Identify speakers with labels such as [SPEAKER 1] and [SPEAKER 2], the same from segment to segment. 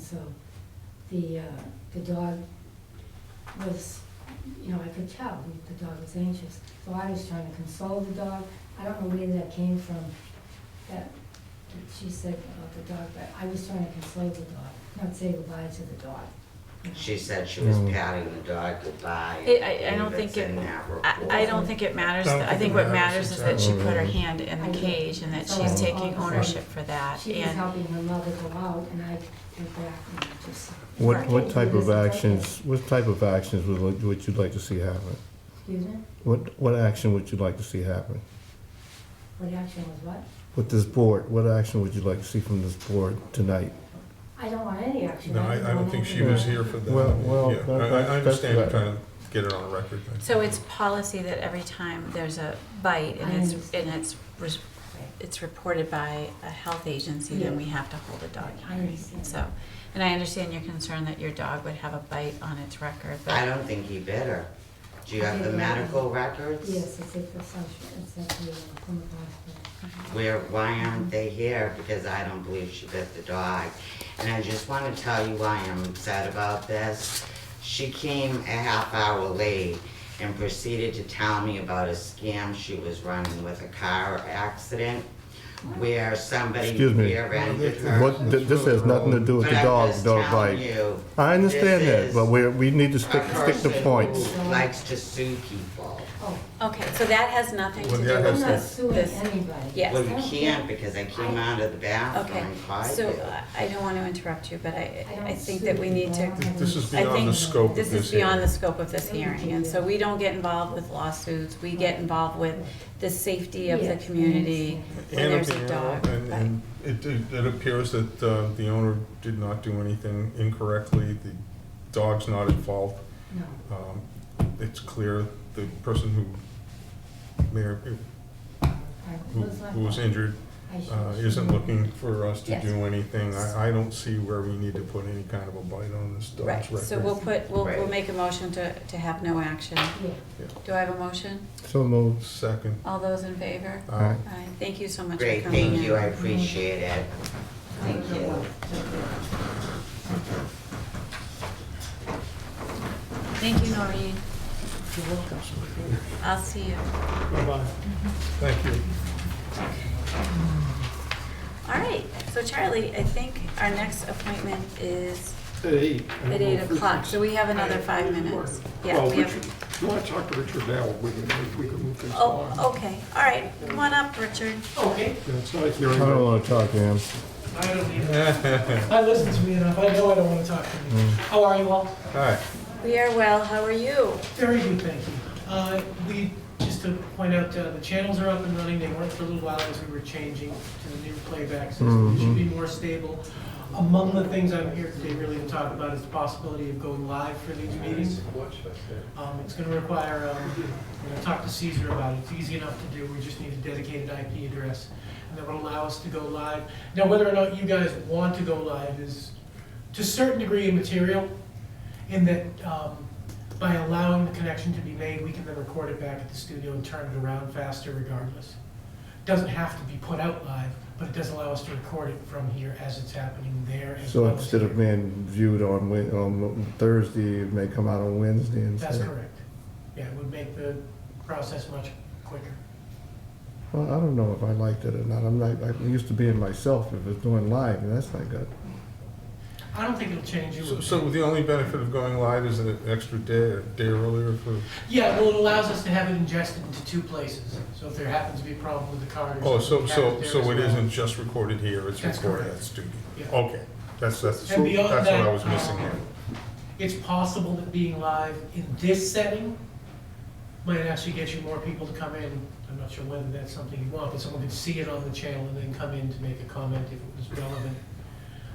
[SPEAKER 1] so the, uh, the dog was, you know, I could tell the- the dog was anxious. So I was trying to console the dog. I don't know where that came from, that that she said about the dog, but I was trying to console the dog, not say goodbye to the dog. you know.
[SPEAKER 2] She said she was
[SPEAKER 3] No.
[SPEAKER 2] patting the dog goodbye.
[SPEAKER 4] It- I- I don't
[SPEAKER 2] believe
[SPEAKER 4] think
[SPEAKER 2] it's in
[SPEAKER 4] it-
[SPEAKER 2] that report.
[SPEAKER 4] I, I don't think it matters,
[SPEAKER 3] Don't
[SPEAKER 4] I think what matters is that she put her
[SPEAKER 3] exactly.
[SPEAKER 4] hand in the cage and that she's taking ownership for that,
[SPEAKER 1] She was
[SPEAKER 4] and
[SPEAKER 1] helping her mother go out and I went back and just,
[SPEAKER 3] What,
[SPEAKER 4] Right.
[SPEAKER 3] what type of actions, what type of actions would, li- would you like to see happen?
[SPEAKER 1] excuse me,
[SPEAKER 3] What, what action would you like to see happen?
[SPEAKER 1] what action was what?
[SPEAKER 3] With this board, what action would you like to see from this board tonight?
[SPEAKER 1] I don't want any action.
[SPEAKER 5] No, I, I don't think she was here for that.
[SPEAKER 3] Well- well,
[SPEAKER 5] Yeah, I- I,
[SPEAKER 3] that's-
[SPEAKER 5] I understand
[SPEAKER 3] that's
[SPEAKER 5] you're trying to get it on record. but-
[SPEAKER 4] so it's policy that every time there's a bite
[SPEAKER 1] I
[SPEAKER 4] and it's,
[SPEAKER 1] understand.
[SPEAKER 4] and it's, res- it's reported by a health agency, then we have to hold a dog
[SPEAKER 1] I
[SPEAKER 4] hearing,
[SPEAKER 1] understand.
[SPEAKER 4] so. And I understand your concern that your dog would have a bite on its record,
[SPEAKER 2] I
[SPEAKER 4] but
[SPEAKER 2] don't think he bit her. Do you
[SPEAKER 1] I
[SPEAKER 2] have the
[SPEAKER 1] didn't.
[SPEAKER 2] medical records?
[SPEAKER 1] Yes, it's at the social, it's at the, uh, Plymouth hospital.
[SPEAKER 2] Where, why aren't they here? Because I don't believe she bit the dog. And I just wanna tell you why I'm upset about this. She came a half hour late and proceeded to tell me about a scam she was running with a car accident where somebody
[SPEAKER 3] Excuse me.
[SPEAKER 2] rear-ended her.
[SPEAKER 3] What, th- this has nothing to do with
[SPEAKER 2] But
[SPEAKER 3] the
[SPEAKER 2] I'm
[SPEAKER 3] dog,
[SPEAKER 2] just
[SPEAKER 3] dog
[SPEAKER 2] telling
[SPEAKER 3] bite.
[SPEAKER 2] you,
[SPEAKER 3] I understand
[SPEAKER 2] this
[SPEAKER 3] that, but
[SPEAKER 2] is
[SPEAKER 3] we're, we need to stick,
[SPEAKER 2] a
[SPEAKER 3] stick to
[SPEAKER 2] person
[SPEAKER 3] points.
[SPEAKER 2] who Likes to sue people.
[SPEAKER 1] Oh,
[SPEAKER 4] Okay, so that has nothing to
[SPEAKER 5] Well,
[SPEAKER 4] do
[SPEAKER 5] that
[SPEAKER 4] with
[SPEAKER 1] I'm
[SPEAKER 5] has
[SPEAKER 1] not
[SPEAKER 4] this,
[SPEAKER 1] suing
[SPEAKER 4] this,
[SPEAKER 1] anybody.
[SPEAKER 4] Yes.
[SPEAKER 2] Well, you can't because I came out of the
[SPEAKER 4] okay,
[SPEAKER 2] bathroom and cried.
[SPEAKER 4] so uh,
[SPEAKER 2] you.
[SPEAKER 4] I- I don't wanna interrupt you, but I,
[SPEAKER 1] I don't
[SPEAKER 4] I think that we
[SPEAKER 1] sue
[SPEAKER 4] need to
[SPEAKER 1] people. I don't
[SPEAKER 5] This is
[SPEAKER 1] have any-
[SPEAKER 4] I
[SPEAKER 5] beyond the
[SPEAKER 4] think
[SPEAKER 5] scope of this
[SPEAKER 4] This is
[SPEAKER 5] hearing.
[SPEAKER 4] beyond the scope of this hearing, and so we don't get involved with lawsuits, we get involved with the safety of the
[SPEAKER 1] Yes, I
[SPEAKER 4] community
[SPEAKER 1] understand.
[SPEAKER 4] when
[SPEAKER 5] And
[SPEAKER 4] there's a
[SPEAKER 5] appear-
[SPEAKER 4] dog.
[SPEAKER 5] And, and it, it it appears that, uh, the owner did not do anything incorrectly, the dog's not at fault.
[SPEAKER 1] No,
[SPEAKER 5] Um, It's clear the person who may, or-
[SPEAKER 1] I- it
[SPEAKER 5] who,
[SPEAKER 1] my
[SPEAKER 5] who was
[SPEAKER 1] fault.
[SPEAKER 5] injured,
[SPEAKER 1] I should-
[SPEAKER 5] uh, isn't looking for us to
[SPEAKER 1] Yes.
[SPEAKER 5] do anything. I, I don't see where we need to put any kind of a bite on this dog's
[SPEAKER 4] Right,
[SPEAKER 5] record.
[SPEAKER 4] so we'll put, we'll, we'll
[SPEAKER 2] Right.
[SPEAKER 4] make a motion to, to have no action.
[SPEAKER 1] Yeah,
[SPEAKER 4] Do I have a motion?
[SPEAKER 3] So moved.
[SPEAKER 5] Second,
[SPEAKER 4] All those in favor?
[SPEAKER 5] uh,
[SPEAKER 4] Aye, thank you so much for coming
[SPEAKER 2] Great,
[SPEAKER 4] in.
[SPEAKER 2] thank you, I appreciate it. Thank you.
[SPEAKER 4] Thank you, Noreen,
[SPEAKER 1] you're welcome.
[SPEAKER 4] I'll see you.
[SPEAKER 5] bye-bye. Thank you.
[SPEAKER 4] All right, so Charlie, I think our next appointment is
[SPEAKER 6] At eight.
[SPEAKER 4] at eight o'clock, so we have another five minutes. Yeah,
[SPEAKER 6] Well,
[SPEAKER 4] we have.
[SPEAKER 6] Richard, you want to talk to Richard now, we can, we can move things along.
[SPEAKER 4] Oh, okay, all right, come on up, Richard.
[SPEAKER 7] Okay,
[SPEAKER 6] Yeah, It's not a
[SPEAKER 3] I
[SPEAKER 6] hearing,
[SPEAKER 3] don't
[SPEAKER 6] but
[SPEAKER 3] wanna talk, Ann.
[SPEAKER 7] I don't either. I listened to me enough, I know I don't want to talk to you. How are you all?
[SPEAKER 5] Hi.
[SPEAKER 4] We are well, how are you?
[SPEAKER 7] Very good, thank you. Uh, We, just to point out, uh, the channels are up and running, they weren't for a little while as we were changing to the new playback system, it should be more stable. Among the things I'm here today really to talk about is the possibility of going live for these meetings. Um, It's going to require, um, we're going to talk to Caesar about it, it's easy enough to do, we just need a dedicated IP address, and that would allow us to go live. Now, whether or not you guys want to go live is, to a certain degree, immaterial, in that um, by allowing the connection to be made, we can then record it back at the studio and turn it around faster regardless. Doesn't have to be put out live, but it does allow us to record it from here as it's happening there. as
[SPEAKER 3] So
[SPEAKER 7] well as
[SPEAKER 3] instead of
[SPEAKER 7] here.
[SPEAKER 3] being viewed on Wed, on Thursday, it may come out on Wednesday instead.
[SPEAKER 7] That's correct. Yeah, it would make the process much quicker.
[SPEAKER 3] Well, I don't know if I liked it or not. I'm not, I'm used to being myself if it's doing live, and that's not good.
[SPEAKER 7] I don't think it'll change you.
[SPEAKER 5] So- So the only benefit of going live is an extra day, a day earlier for,
[SPEAKER 7] Yeah, well, it allows us to have it ingested into two places. So if there happens to be a problem with the card
[SPEAKER 5] oh,
[SPEAKER 7] or
[SPEAKER 5] so,
[SPEAKER 7] something.
[SPEAKER 5] so,
[SPEAKER 7] happens there
[SPEAKER 5] so
[SPEAKER 7] as
[SPEAKER 5] it
[SPEAKER 7] well.
[SPEAKER 5] isn't just recorded here, it's
[SPEAKER 7] That's
[SPEAKER 5] recorded
[SPEAKER 7] correct.
[SPEAKER 5] at studio?
[SPEAKER 7] Yeah.
[SPEAKER 5] Okay, that's, that's, that's
[SPEAKER 7] And
[SPEAKER 5] what
[SPEAKER 7] beyond that,
[SPEAKER 5] I was missing
[SPEAKER 7] um,
[SPEAKER 5] here.
[SPEAKER 7] It's possible that being live in this setting might actually get you more people to come in. I'm not sure whether that's something you want, but someone could see it on the channel and then come in to make a comment if it was relevant.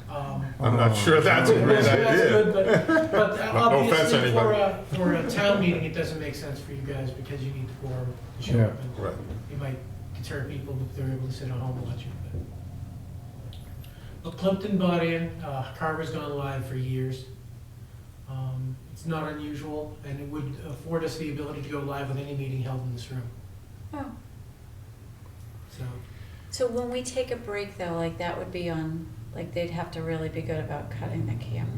[SPEAKER 7] Um,
[SPEAKER 5] I'm not sure that's a great
[SPEAKER 7] That's good,
[SPEAKER 5] idea.
[SPEAKER 7] but, but
[SPEAKER 5] No offense,
[SPEAKER 7] obviously for a, for a town meeting, it doesn't make sense for you guys because you need the quorum to show
[SPEAKER 3] Yeah.
[SPEAKER 7] up. and
[SPEAKER 5] Right.
[SPEAKER 7] It might deter people if they're able to sit at home and watch it. but- But Plimpton bought in, uh, Carver's gone live for years. Um, It's not unusual and it would afford us the ability to go live with any meeting held in this room,
[SPEAKER 4] Oh,
[SPEAKER 7] so.
[SPEAKER 4] So when we take a break though, like that would be on like they'd have to really be good about cutting the camera.